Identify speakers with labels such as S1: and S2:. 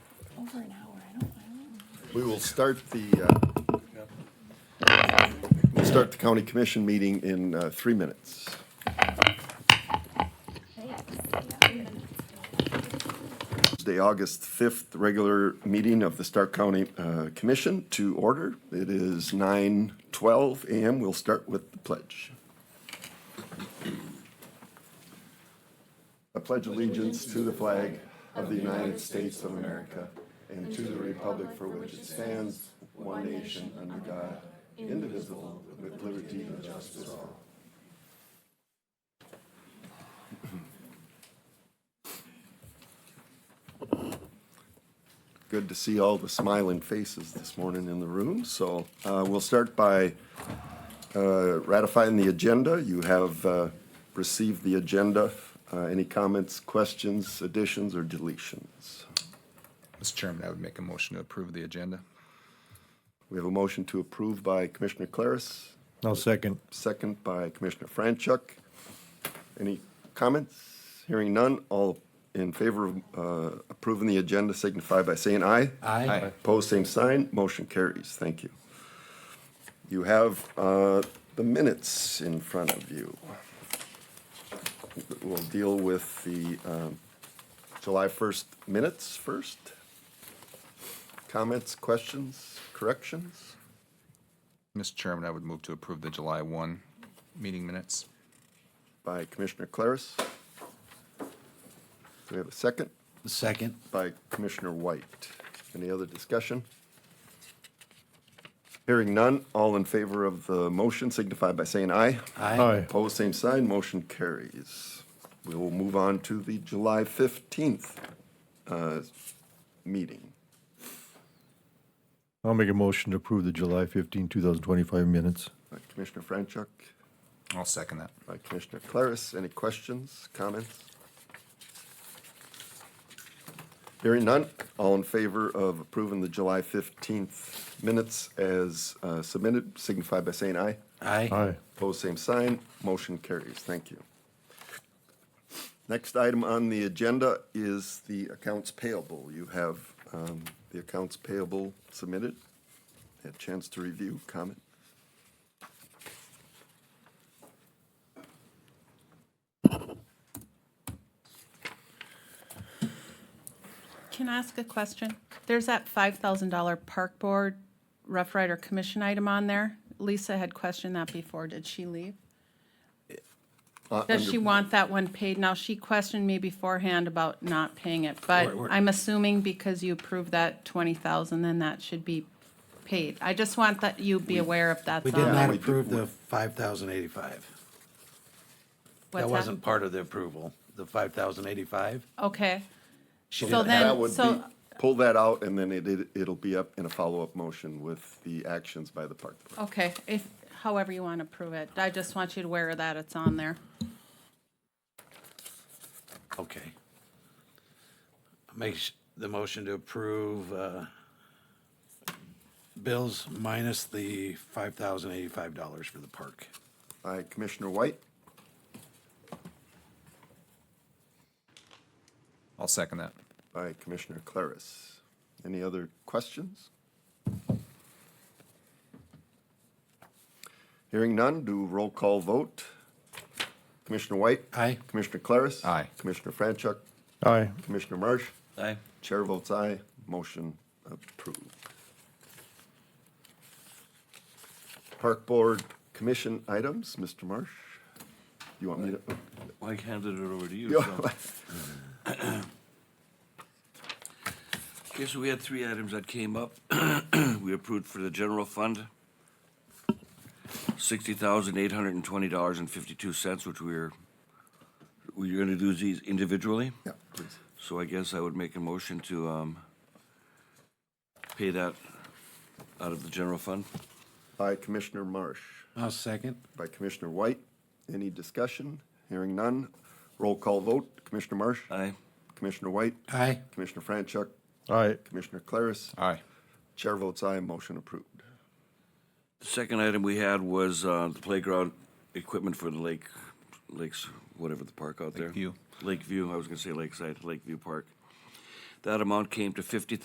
S1: for an hour, I don't, I don't.
S2: We will start the, uh, we'll start the county commission meeting in uh, three minutes. Tuesday, August 5th, regular meeting of the Stark County uh, Commission to order. It is 9:12 a.m. We'll start with the pledge. I pledge allegiance to the flag of the United States of America and to the republic for which it stands, one nation, under God, indivisible, with liberty and justice for all. Good to see all the smiling faces this morning in the room. So uh, we'll start by uh, ratifying the agenda. You have uh, received the agenda. Uh, Any comments, questions, additions, or deletions?
S3: Mr. Chairman, I would make a motion to approve the agenda.
S2: We have a motion to approve by Commissioner Claris,
S4: I'll second.
S2: second by Commissioner Franchuk. Any comments? Hearing none, all in favor of uh, approving the agenda signify by saying aye.
S3: Aye.
S2: Opposed, same sign. Motion carries. Thank you. You have uh, the minutes in front of you. We'll deal with the um, July 1st minutes first. Comments, questions, corrections?
S3: Mr. Chairman, I would move to approve the July 1 meeting minutes.
S2: by Commissioner Claris. Do we have a second?
S4: Second.
S2: By Commissioner White. Any other discussion? Hearing none, all in favor of the motion signify by saying aye.
S4: Aye.
S2: Opposed, same sign, motion carries. We will move on to the July 15th uh, meeting.
S4: I'll make a motion to approve the July 15, 2025 minutes.
S2: By Uh, Commissioner Franchuk,
S3: I'll second that.
S2: by Commissioner Claris, any questions, comments? Hearing none, all in favor of approving the July 15th minutes as uh, submitted, signify by saying aye.
S4: Aye.
S2: Opposed, same sign. Motion carries. Thank you. Next item on the agenda is the accounts payable. You have um, the accounts payable submitted. Had a chance to review, comment?
S5: Can I ask a question? There's that $5,000 Park Board Rough Rider Commission item on there. Lisa had questioned that before. Did she leave?
S2: Uh,
S5: Does she
S2: under-
S5: want that one paid? Now, she questioned me beforehand about not paying it, but I'm assuming because you approved that 20,000, then that should be paid. I just want that you be aware uh, if that's
S6: We
S5: on.
S6: did not
S2: we did-
S6: approve the five thousand eighty-five.
S5: what's
S6: That wasn't part of the approval, the five thousand eighty-five.
S5: Okay. So
S2: That
S5: then,
S2: would
S5: so,
S2: be- Pull that out, and then it- it, it'll be up in a follow-up motion with the actions by the park board.
S5: okay, if, however you want to prove it. I just want you to aware of that. It's on there.
S6: Okay. Make sh- the motion to approve, uh, bills minus the five thousand eighty-five dollars for the park.
S2: By Commissioner White,
S3: I'll second that.
S2: by Commissioner Claris. Any other questions? Hearing none, do roll call vote. Commissioner White?
S6: Aye.
S2: Commissioner Claris?
S3: Aye.
S2: Commissioner Franchuk?
S4: Aye.
S2: Commissioner Marsh?
S6: Aye.
S2: Chair votes aye, motion approved. Park Board Commission items, Mr. Marsh? You want me to?
S7: I handed it over to you. so. Okay, so we had three items that came up. We approved for the general fund, sixty thousand eight hundred and twenty dollars and fifty-two cents, which we're, we're gonna do these individually.
S2: Yeah, please.
S7: So I guess I would make a motion to, um, pay that out of the general fund.
S2: By Commissioner Marsh.
S6: I'll second.
S2: by Commissioner White. Any discussion? Hearing none. Roll call vote. Commissioner Marsh?
S7: Aye.
S2: Commissioner White?
S6: Aye.
S2: Commissioner Franchuk?
S4: Aye.
S2: Commissioner Claris?
S3: Aye.
S2: Chair votes aye, motion approved.
S7: The Second item we had was, uh, the playground equipment for the lake, lakes, whatever the park out there.
S3: Lakeview.
S7: Lakeview, I was gonna say Lakeside, Lakeview Park. That amount came to fifty